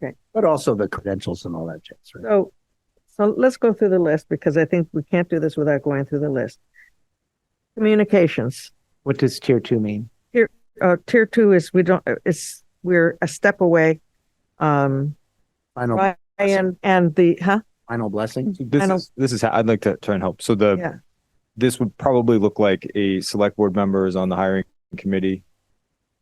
Okay. but also the credentials and all that jazz, right? So, so let's go through the list because I think we can't do this without going through the list. Communications, What does tier two mean? uh, tier two is we don't, it's, we're a step away. Um, Final, Right. and, and the, huh? final blessing. Mm-hmm. This don't- is, this is, how I'd like to try and help. So the, Yeah. this would probably look like a select board member is on the hiring committee,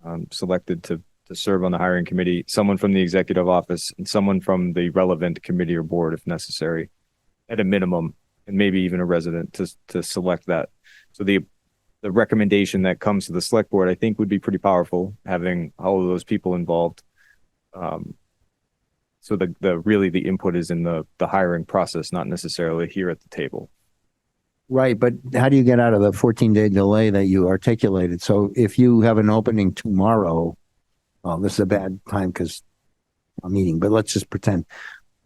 um, selected to, to serve on the hiring committee, someone from the executive office and someone from the relevant committee or board if necessary, at a minimum, and maybe even a resident to, to select that. So the, the recommendation that comes to the select board, I think would be pretty powerful, having all of those people involved. Um, so the, the, really the input is in the, the hiring process, not necessarily here at the table. Right, but how do you get out of the fourteen day delay that you articulated? So if you have an opening tomorrow, well, this is a bad time because I'm eating, but let's just pretend.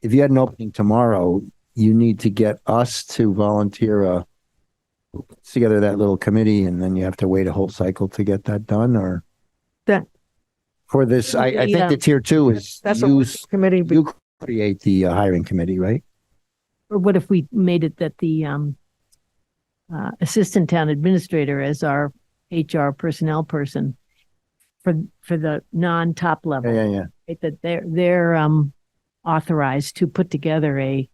If you had an opening tomorrow, you need to get us to volunteer a together that little committee and then you have to wait a whole cycle to get that done or That- for this, I, I think Yeah. the tier two is That's a you, working committee. but you create the uh, hiring committee, right? Or what if we made it that the um, uh, assistant town administrator as our HR personnel person for for the non top Yeah, level, yeah, yeah. right? that they're they're um, authorized to put together a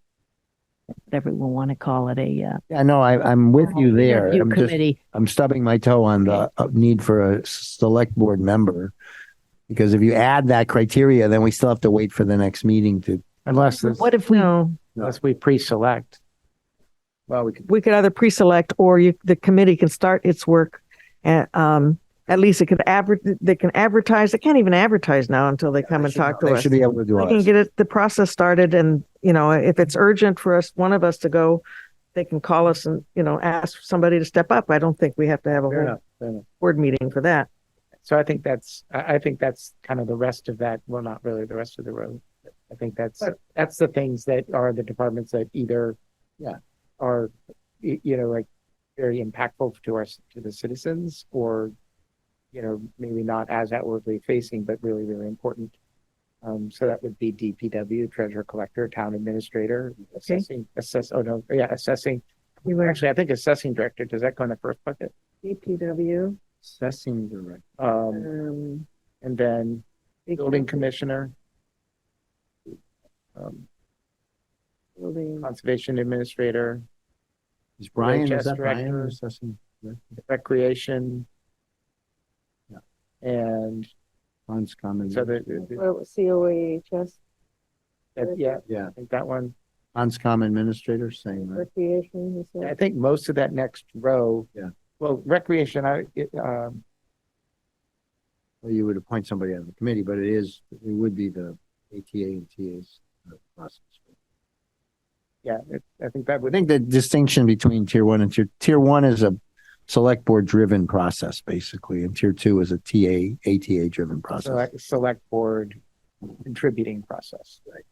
whatever we want to call it a uh, Yeah, no, I, I'm with Oh, you there. review I'm just- committee. I'm stubbing my toe on the uh, need for a select board member. Because if you add that criteria, then we still have to wait for the next meeting to, Unless, this- What if we No, unless we pre-select. well, we could. we could either pre-select or you, the committee can start its work. And, um, at least it could advert, they can advertise. They can't even advertise now until they come and talk to us. They should be able to do We can us. get it, the process started and, you know, if it's urgent for us, one of us to go, they can call us and, you know, ask somebody to step up. I don't think we have to have a Fair whole enough, fair enough. board meeting for that. So I think that's, I, I think that's kind of the rest of that, well, not really the rest of the road. I think that's, that's the things that are the departments that either. Yeah. Are, y- you know, like very impactful to our, to the citizens or, you know, maybe not as outwardly facing, but really, really important. Um, so that would be DPW, treasurer collector, town administrator, assessing, assess, oh no, yeah, assessing. You were- Actually, I think assessing director, does that go in the first bucket? DPW, Assessing director. Um, um. and then building commissioner. um, building- Conservation administrator, Is Brian, is VHS that Brian director. or assessing? recreation. Yeah. And Brian's comment. so the- the, Well, COAHS, that- yeah, Yeah, I think that one, Hans Com administrator saying that. recreation, he said. I think most of that next row. Yeah. Well, recreation, I, it, um, Well, you would appoint somebody on the committee, but it is, it would be the ATA and TA's process. yeah, it- I think that I would, think the distinction between tier one and tier, tier one is a select board driven process, basically, and tier two is a TA, ATA driven process. select, select board contributing process. Right.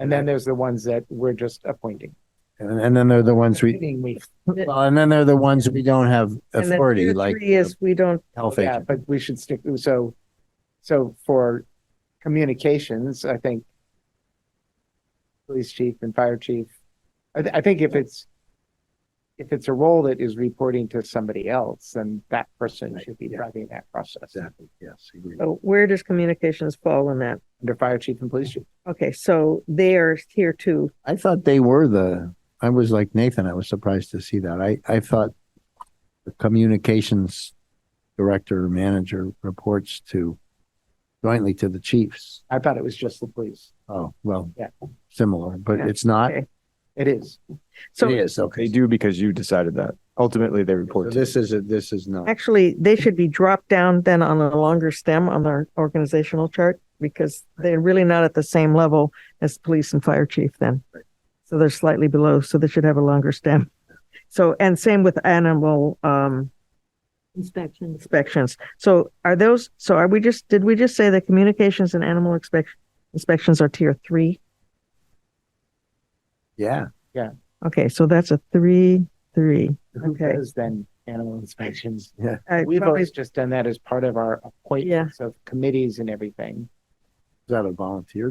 And then there's the ones that we're just appointing. And, and then they're the ones we, Meaning we well, and then they're the ones we don't have And then authority, tier like Three is, we don't, health Yeah, agent. but we should stick, so, so for communications, I think police chief and fire chief, I, th- I think if it's, if it's a role that is reporting to somebody else, then that person Right, should be yeah. driving that process. Exactly, yes, agree. oh, where does communications fall in that? Under fire chief and police chief. Okay, so they are tier two. I thought they were the, I was like Nathan, I was surprised to see that. I, I thought the communications director, or manager reports to jointly to the chiefs. I thought it was just the police. Oh, well, Yeah. similar, but Yeah. it's not. Okay. It It is. So is, okay. They do because you decided that. Ultimately, they So report to this is, a- this is not. Actually, they should be dropped down then on a longer stem on their organizational chart because they're really not at the same level as police and fire chief then. So they're slightly below, so they should have a longer stem. So, and same with animal, um, inspections? inspections. So are those, so are we just, did we just say that communications and animal inspec- inspections are tier three? Yeah. Okay, so that's a three, three. Who Okay. does then animal inspections? I We've probably- always just done that as part of our appointments of committees and everything. Is that a volunteer